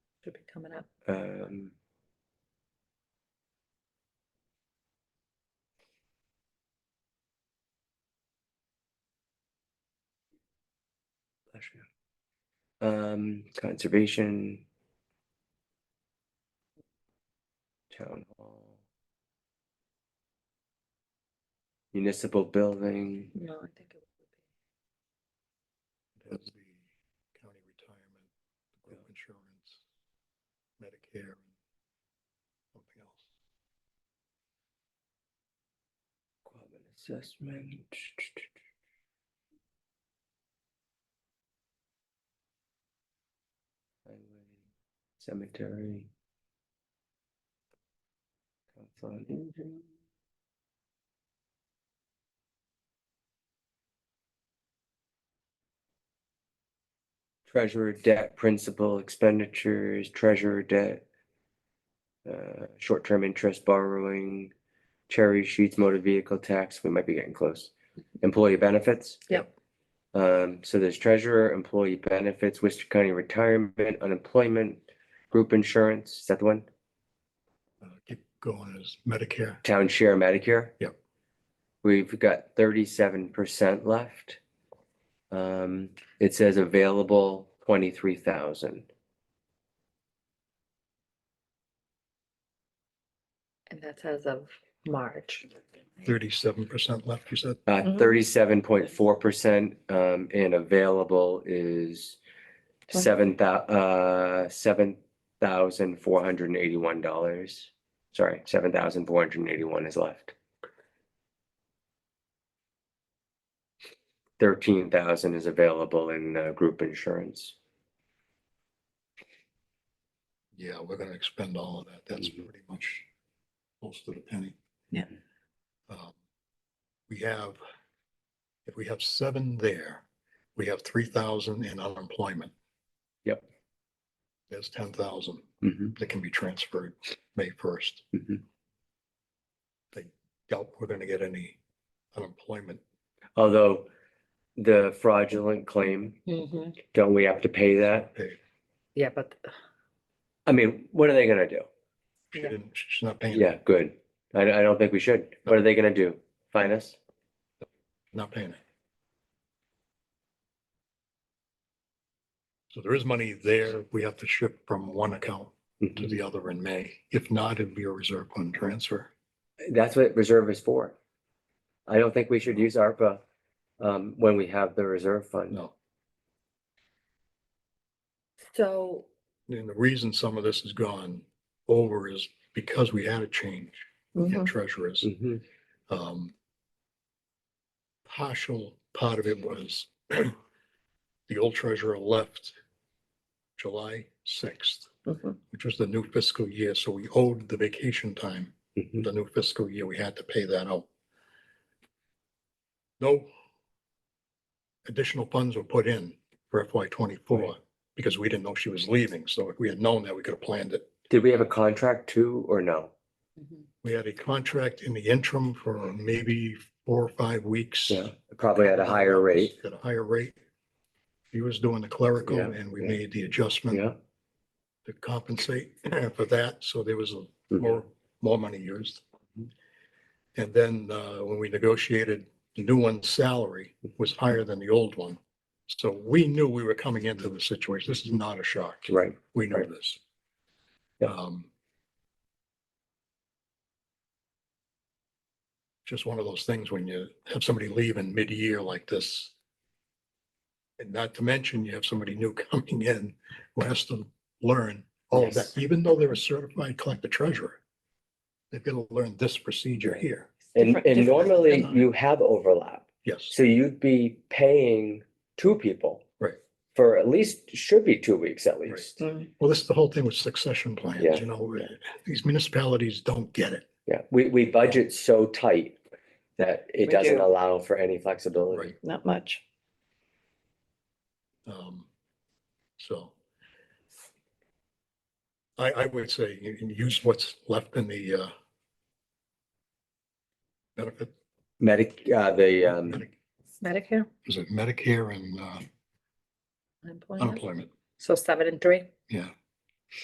Should be coming up. Um. bless you. Um, conservation. Town hall. Municipal building. No, I think it would be. That's the county retirement, the group insurance, Medicare, and something else. Common assessment. Highway, cemetery. Council on Aging. Treasurer debt, principal expenditures, treasurer debt. Uh, short-term interest borrowing cherry sheets, motor vehicle tax, we might be getting close. Employee benefits. Yep. Um, so there's treasurer, employee benefits, Worcester County retirement, unemployment, group insurance, is that the one? Uh, keep going as Medicare, Town share Medicare? Yep. We've got thirty-seven percent left. Um, it says available twenty-three thousand. And that's as of March. thirty-seven percent left, you said? Uh, Mhm. thirty-seven point four percent, um, and available is Twen- seven thou- uh, seven thousand four hundred and eighty-one dollars. Sorry, seven thousand four hundred and eighty-one is left. Thirteen thousand is available in, uh, group insurance. Yeah, we're gonna expend all of that. That's Mhm. pretty much close to the penny. Yeah. Um, We have, if we have seven there, we have three thousand in unemployment. Yep. There's ten thousand Mhm. that can be transferred May first. Mhm. Doubt we're gonna get any unemployment. Although the fraudulent claim, Mm-hmm. don't we have to pay that? pay. Yeah, but I mean, what are they gonna do? She Yeah. didn't, she's not paying, it. Yeah, good. I, I don't think we should. What are they gonna do? Fine us? not paying it. So there is money there. We have to shift from one account to the other in May. If not, it'd be a reserve fund transfer. That's what reserve is for. I don't think we should use ARPA um when we have the reserve fund. No. so, And the reason some of this has gone over is because we had a change in Mhm. treasurers. Mhm, um, partial part of it was the old treasurer left July sixth, Mhm. which was the new fiscal year, so we owed the vacation time, mhm. the new fiscal year, we had to pay that out. No additional funds were put in for FY twenty-four because we didn't know she was leaving, so if we had known that, we could have planned it. Did we have a contract too or no? Mm-hmm. We had a contract in the interim for maybe four or five weeks. Probably at a higher rate. At a higher rate. He was doing the clerical Yeah, and we yeah. made the adjustment Yeah. to compensate for that, so there was a Mhm, more, more money used. Mhm. And then uh, when we negotiated, the new one's salary was higher than the old one. So we knew we were coming into the situation. This is not a shock. Right. We know Right. this. Yeah. Um, Just one of those things when you have somebody leave in mid-year like this. And not to mention you have somebody new coming in who has to learn all of that, Yes. even though they're a certified collector treasurer. They've got to learn this procedure Right. here. And Different- and different normally than- you have overlap. Yes, So you'd be paying two people. Right. For at least, should be two weeks at Right. least. Mm. well, this is the whole thing with succession Yeah. plans, you know, these municipalities don't get it. Yeah, we we budget so tight that it We doesn't do. allow for any flexibility. not much. Um, so. I, I would say you can use what's left in the, uh, benefit. Medic, uh, the um, Medi- Medicare, Is it Medicare and, uh, unemployment, unemployment? so seven and three, Yeah,